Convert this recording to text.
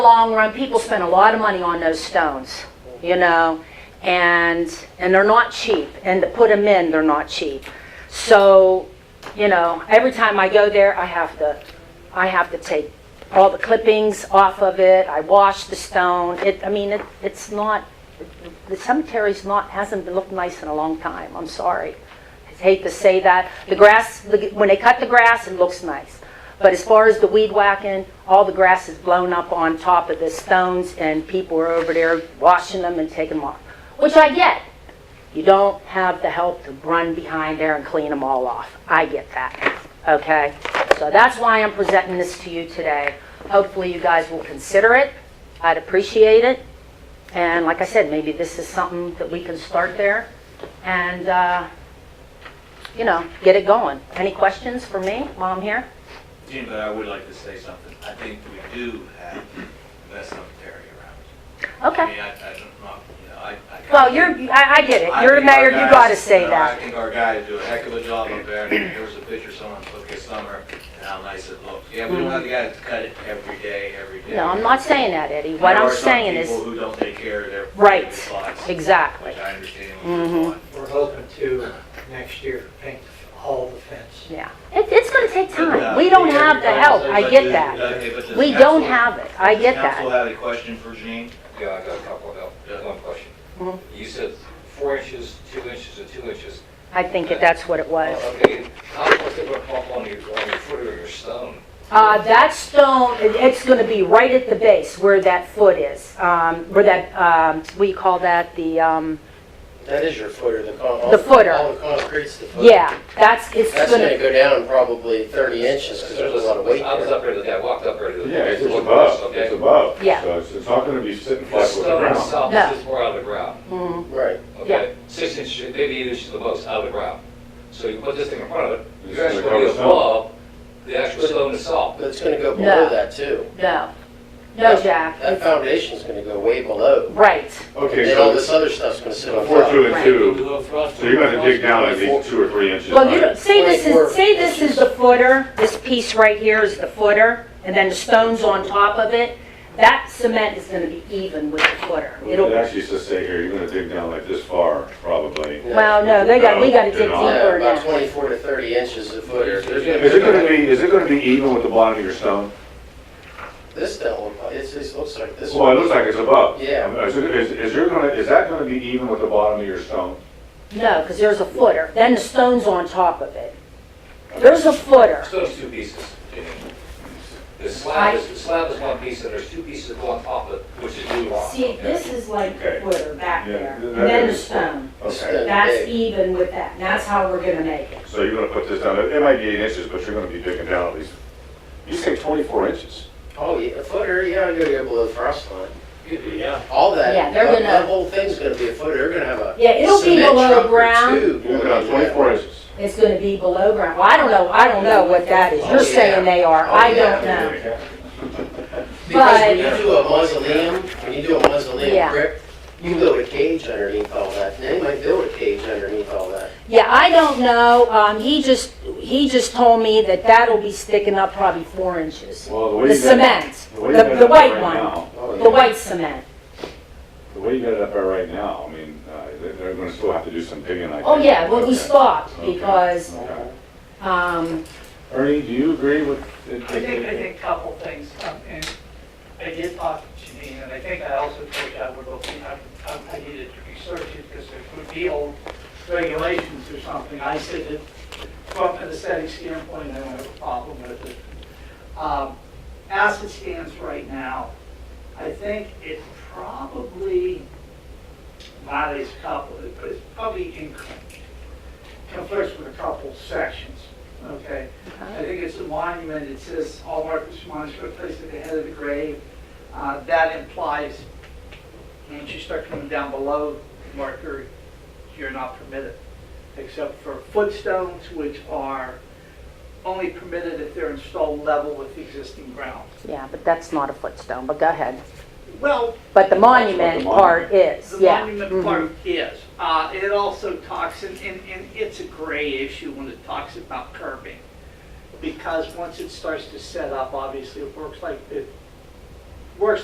long run, people spend a lot of money on those stones, you know, and, and they're not cheap, and to put them in, they're not cheap. So, you know, every time I go there, I have to, I have to take all the clippings off of it, I wash the stone, it, I mean, it, it's not, the cemetery's not, hasn't been looked nice in a long time, I'm sorry. I hate to say that, the grass, the- when they cut the grass, it looks nice. But as far as the weed whacking, all the grass is blown up on top of the stones, and people are over there washing them and taking them off, which I get. You don't have the help to run behind there and clean them all off. I get that, okay? So that's why I'm presenting this to you today. Hopefully, you guys will consider it. I'd appreciate it. And like I said, maybe this is something that we can start there and, uh, you know, get it going. Any questions for me while I'm here? Gene, but I would like to say something. I think we do have the best cemetery around. I Okay. mean, I, I don't know, you know, I. I- Well, you're, I, I get it. I You're the think our mayor, you guys- gotta say you know, I that. think our guys do a heck of a job up there. There was a picture someone took this summer and how nice it looks. Yeah, we don't have the guys to cut it every day, every day. No, I'm not saying that, Eddie. What There I'm are some saying is, people who don't take care of their. Right. private lives, exactly. Mm-hmm. Which I understand what you're doing. We're hoping to next year paint the- all the fence. Yeah. It, it's gonna take But, uh, time. We don't yeah, have the help. I but get does- that. okay, but does We council- don't have it. I get Does council that. have a question for Gene? Yeah, I got a couple of help, Yeah. one question. Mhm. You said four inches, two inches, and two inches. I think that that's what it was. Uh, Well, Okay, how much they gonna pump on your, on your foot or your stone? Uh, that stone, it- it's gonna be right at the base where that foot is, um, where that, um, we call that the, um, That is your footer, the con- all The footer. All the concrete's the footer. yeah, that's, it's That's gonna gonna, go down probably thirty inches, because there's a lot of weight I was there. up there today, I walked up there today. Yeah, it's just Looked above, okay? it's above. Yeah. So it's, it's not gonna be sitting The flat with the stone ground. itself No. is just more out of the ground, mhm, Right. okay? Six inches, maybe eight inches the most out of the ground. So you put this thing in front of it, It's you're actually gonna cover gonna be stone. above the actual stone itself. But it's gonna go No. below that too. no, no, Jack, That foundation's gonna go way below. right, And Okay, then all this so other stuff's gonna sit on four, top. two Right. and two, so you're gonna dig down at least two or three inches. Well, you right? don't, say this is, say this is the footer, this piece right here is the footer, and then the stone's on top of it. That cement is gonna be even with the footer. It It'll, actually says stay here, you're gonna dig down like this far, probably. well, no, they got, we gotta dig Yeah, deeper about now. twenty-four to thirty inches of footer. There's Is it gonna gonna be, be, is it gonna be even with the bottom of your stone? this don't look like, it's, it looks like this Well, Oh, it one. looks like it's above. Yeah. Is, it- is, is you're gonna, is that gonna be even with the bottom of your stone? No, because there's a footer, then the stone's on top of it. There's a footer. Stone's two pieces, Jimmy. The slab is, the slab is one piece, and there's two pieces on top of it, which is new rock. See, okay? this is like the Okay. footer back Yeah, there, that and then the is- stone. Okay, That's even with that, and that's how we're gonna make it. so you're gonna put this down, it it might be eight inches, but you're gonna be digging down at least, you say twenty-four inches? Oh, yeah, a footer, yeah, you gotta go below the frost line. Yeah. All that, Yeah, that they're gonna- that whole thing's gonna be a footer. They're gonna have a Yeah, it'll be cement below trunk or ground. two You're going gonna have into that. twenty-four inches. It's gonna be below ground. Well, I don't know, I don't know what that is. Oh, You're yeah. saying they are, Oh, I yeah. don't know. Because when But- you do a mausoleum, when you do a Yeah. mausoleum crypt, you build a cage underneath all that. They might build a cage underneath all that. Yeah, I don't know, um, he just, he just told me that that'll be sticking up probably four inches. Well, way The you got- cement, way you got the, the it white right one, now- Oh, the yeah. white cement. The way you got it up there right now, I mean, uh, they're, they're gonna still have to do some digging, I think. Oh, yeah, well, we Okay. stopped Okay. because, Okay. um, Ernie, do you agree with? I think, I think a couple things, um, and I did talk to Janine, and I think I also told you I would look, I, I needed to research it, because there could be old regulations or something, I said that from an aesthetic standpoint, I don't have a problem with it. Um, as it stands right now, I think it probably violates a couple, but it's probably in conflicts with a couple sections, okay? I think it's a monument, it says all markers monument placed at the head of the grave. Uh, That implies, once you start coming down below the marker, you're not permitted, except for footstones, which are only permitted if they're installed level with the existing ground. yeah, but that's not a footstone, but go ahead. Well, But the monument The part is, the yeah. monument mhm. part is, Uh, it also talks, and, and and it's a gray issue when it talks about curbing. Because once it starts to set up, obviously, it works like, it works